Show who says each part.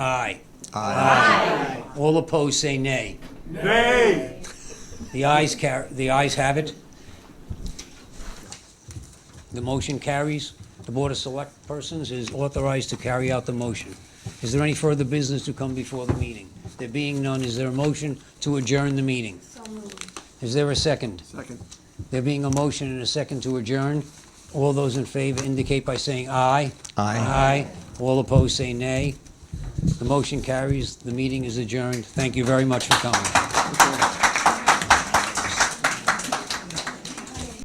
Speaker 1: Aye. Aye. All opposed, say nay.
Speaker 2: Nay.
Speaker 1: The ayes car, the ayes have it. The motion carries. The Board of Select Persons is authorized to carry out the motion. Is there any further business to come before the meeting? There being none, is there a motion to adjourn the meeting?
Speaker 3: So moved.
Speaker 1: Is there a second?
Speaker 2: Second.
Speaker 1: There being a motion and a second to adjourn, all those in favor indicate by saying aye. Aye. All opposed, say nay. The motion carries. The meeting is adjourned. Thank you very much for coming.
Speaker 2: Okay.